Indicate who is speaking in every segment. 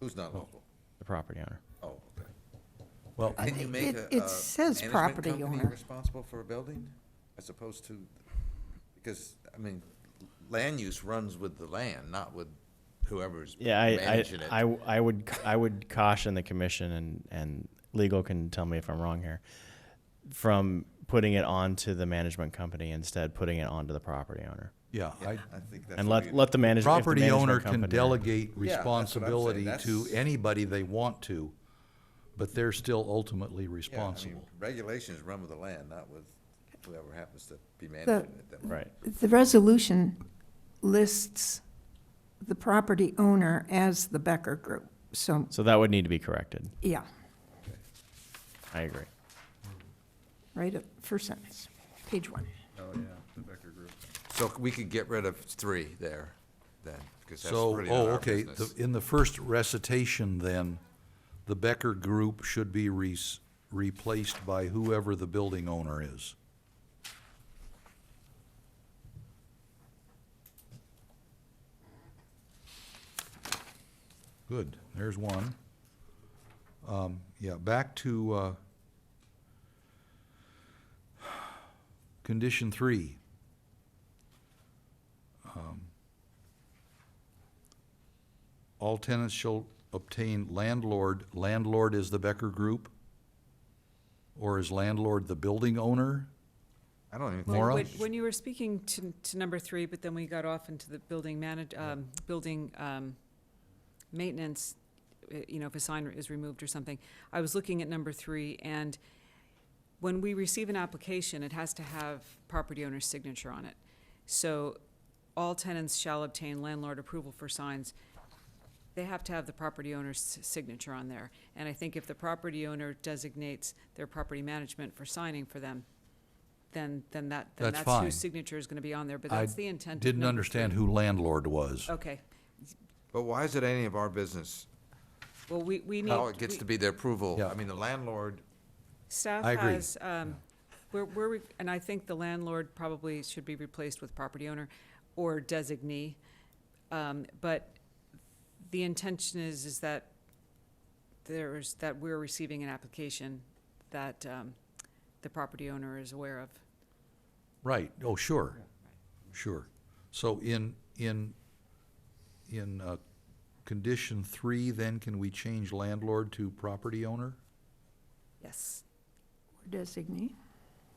Speaker 1: Who's not local?
Speaker 2: the property owner.
Speaker 1: Oh, okay.
Speaker 3: Oh. Well,
Speaker 1: Can you make
Speaker 4: It-
Speaker 1: a,
Speaker 4: it
Speaker 1: a
Speaker 4: says
Speaker 1: management
Speaker 4: property
Speaker 1: company
Speaker 4: owner.
Speaker 1: Responsible for a building as opposed to, because, I mean, land use runs with the land, not with whoever's
Speaker 2: Yeah, I,
Speaker 1: managing it.
Speaker 2: I, I, I would, I would caution the commission and, and legal can tell me if I'm wrong here, from putting it onto the management company instead, putting it onto the property owner.
Speaker 3: yeah, I,
Speaker 1: I think that's.
Speaker 2: And
Speaker 1: what
Speaker 2: let,
Speaker 1: we-
Speaker 2: let the manage- if the management.
Speaker 3: property owner can
Speaker 2: company-
Speaker 3: delegate
Speaker 1: what I'm saying.
Speaker 3: responsibility to
Speaker 1: That's-
Speaker 3: anybody they want to, but they're still ultimately
Speaker 1: Yeah, I mean,
Speaker 3: responsible.
Speaker 1: Regulations run with the land, not with whoever happens to be managing it. That-
Speaker 2: Right.
Speaker 4: The resolution lists the property owner as the Becker Group, so,
Speaker 2: So that would need to be corrected.
Speaker 4: yeah,
Speaker 2: I agree.
Speaker 4: right at first sentence, page one.
Speaker 1: So we could get rid of three there, then, because that's
Speaker 3: So,
Speaker 1: really not
Speaker 3: oh,
Speaker 1: our
Speaker 3: okay,
Speaker 1: business.
Speaker 3: the- in the first recitation then, the Becker Group should be re- replaced by whoever the building owner is. Good, there's one. Um, yeah, back to, uh, condition three. All tenants shall obtain landlord, landlord is the Becker Group? Or is landlord the building owner?
Speaker 1: I don't even
Speaker 3: Well,
Speaker 1: think,
Speaker 3: Laura?
Speaker 5: When- When you were speaking to, to number three, but then we got off into the building manage, um, building, um, maintenance, uh, you know, if a sign is removed or something, I was looking at number three, and when we receive an application, it has to have property owner's signature on it. So all tenants shall obtain landlord approval for signs. They have to have the property owner's s- signature on there. And I think if the property owner designates their property management for signing for them, then, then that, then
Speaker 3: That's
Speaker 5: that's
Speaker 3: fine.
Speaker 5: whose signature is gonna be on there, but
Speaker 3: I
Speaker 5: that's the Oh. intent of
Speaker 3: Didn't
Speaker 5: number
Speaker 3: understand
Speaker 5: three.
Speaker 3: who landlord was.
Speaker 5: Okay,
Speaker 1: but why is it any of our business?
Speaker 5: well, we, we need.
Speaker 1: How it gets
Speaker 5: we-
Speaker 1: to be the approval?
Speaker 3: Yeah.
Speaker 1: I mean, the landlord,
Speaker 5: Staff
Speaker 3: I agree.
Speaker 5: has, um, we're, we're, re- and I think the landlord probably should be replaced with property owner or designee. Um, but the intention is, is that there's, that we're receiving an application that, um, the property owner is aware of.
Speaker 3: Right, oh, sure, sure. So in, in, in, uh, condition three, then can we change landlord to property owner?
Speaker 5: Yes.
Speaker 4: Designee,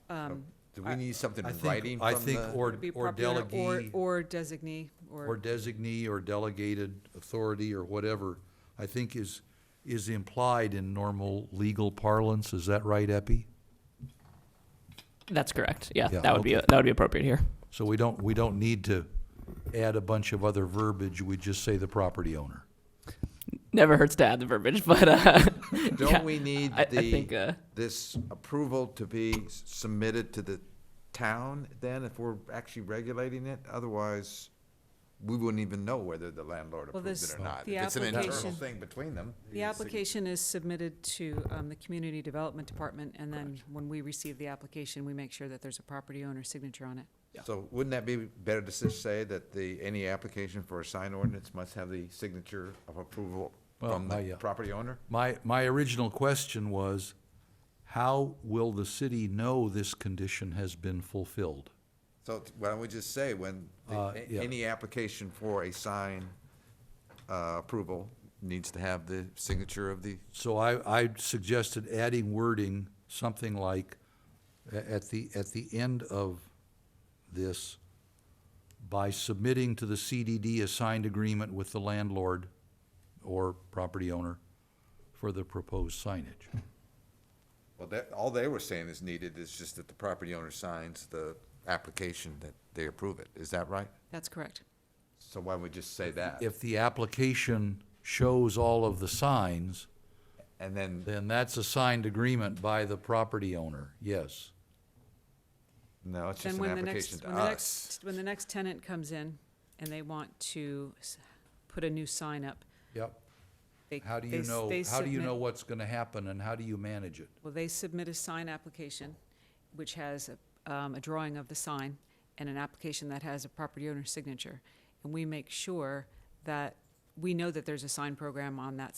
Speaker 5: Um,
Speaker 1: do we need something
Speaker 3: I
Speaker 1: in
Speaker 3: think-
Speaker 1: writing
Speaker 3: I
Speaker 1: from
Speaker 3: think
Speaker 1: the-
Speaker 3: or-
Speaker 5: it'd be
Speaker 3: or
Speaker 5: property owner
Speaker 3: delegee.
Speaker 5: Or, or designee,
Speaker 3: or
Speaker 5: or,
Speaker 3: designee or delegated authority or whatever, I think is, is implied in normal legal parlance. Is that right, Epi?
Speaker 6: That's correct. Yeah,
Speaker 3: Yeah,
Speaker 6: that would be
Speaker 3: okay.
Speaker 6: that would be appropriate here.
Speaker 3: So we don't, we don't need to add a bunch of other verbiage, we just say the property owner.
Speaker 6: Never hurts to add the verbiage, but uh, yeah,
Speaker 1: don't we need
Speaker 6: I, I think
Speaker 1: the,
Speaker 6: uh,
Speaker 1: this approval to be submitted to the town then, if we're actually regulating it? Otherwise, we wouldn't even know whether the landlord
Speaker 5: Well,
Speaker 1: approved it
Speaker 5: this-
Speaker 1: or not.
Speaker 5: the
Speaker 1: If It's an internal
Speaker 5: application-
Speaker 1: thing between them.
Speaker 5: the application is submitted to, um, the Community Development Department, and then when we receive the application, we make sure that there's a property owner signature on it.
Speaker 1: So wouldn't that be better to just say that the, any application for a sign ordinance must have the signature of approval
Speaker 3: Well,
Speaker 1: from
Speaker 3: I,
Speaker 1: the
Speaker 3: yeah.
Speaker 1: property owner?
Speaker 3: My, my original question was, how will the city know this condition has been fulfilled?
Speaker 1: So t- why don't we just say when, the-
Speaker 3: Uh,
Speaker 1: a-
Speaker 3: yeah.
Speaker 1: any application for a sign uh, approval needs to have the signature of the,
Speaker 3: So I, I suggested adding wording, something like, a- at the, at the end of this, by submitting to the CDD a signed agreement with the landlord or property owner for the proposed signage.
Speaker 1: well, that, all they were saying is needed is just that the property owner signs the application that they approve it. Is that right?
Speaker 5: That's correct.
Speaker 1: So why don't we just say that?
Speaker 3: If the application shows all of the signs,
Speaker 1: And then,
Speaker 3: then that's a signed agreement by the property owner, yes.
Speaker 1: no, it's
Speaker 5: Then
Speaker 1: just an
Speaker 5: when the
Speaker 1: application
Speaker 5: next,
Speaker 1: to
Speaker 5: when the
Speaker 1: us.
Speaker 5: next, when the next tenant comes in and they want to s- put a new sign up,
Speaker 3: Yep.
Speaker 5: they,
Speaker 3: How do
Speaker 5: they
Speaker 3: you
Speaker 5: s-
Speaker 3: know,
Speaker 5: they
Speaker 3: how do you
Speaker 5: submit-
Speaker 3: know what's gonna happen and how do you manage it?
Speaker 5: Well, they submit a sign application, which has a, um, a drawing of the sign and an application that has a property owner's signature. And we make sure that, we know that there's a sign program on that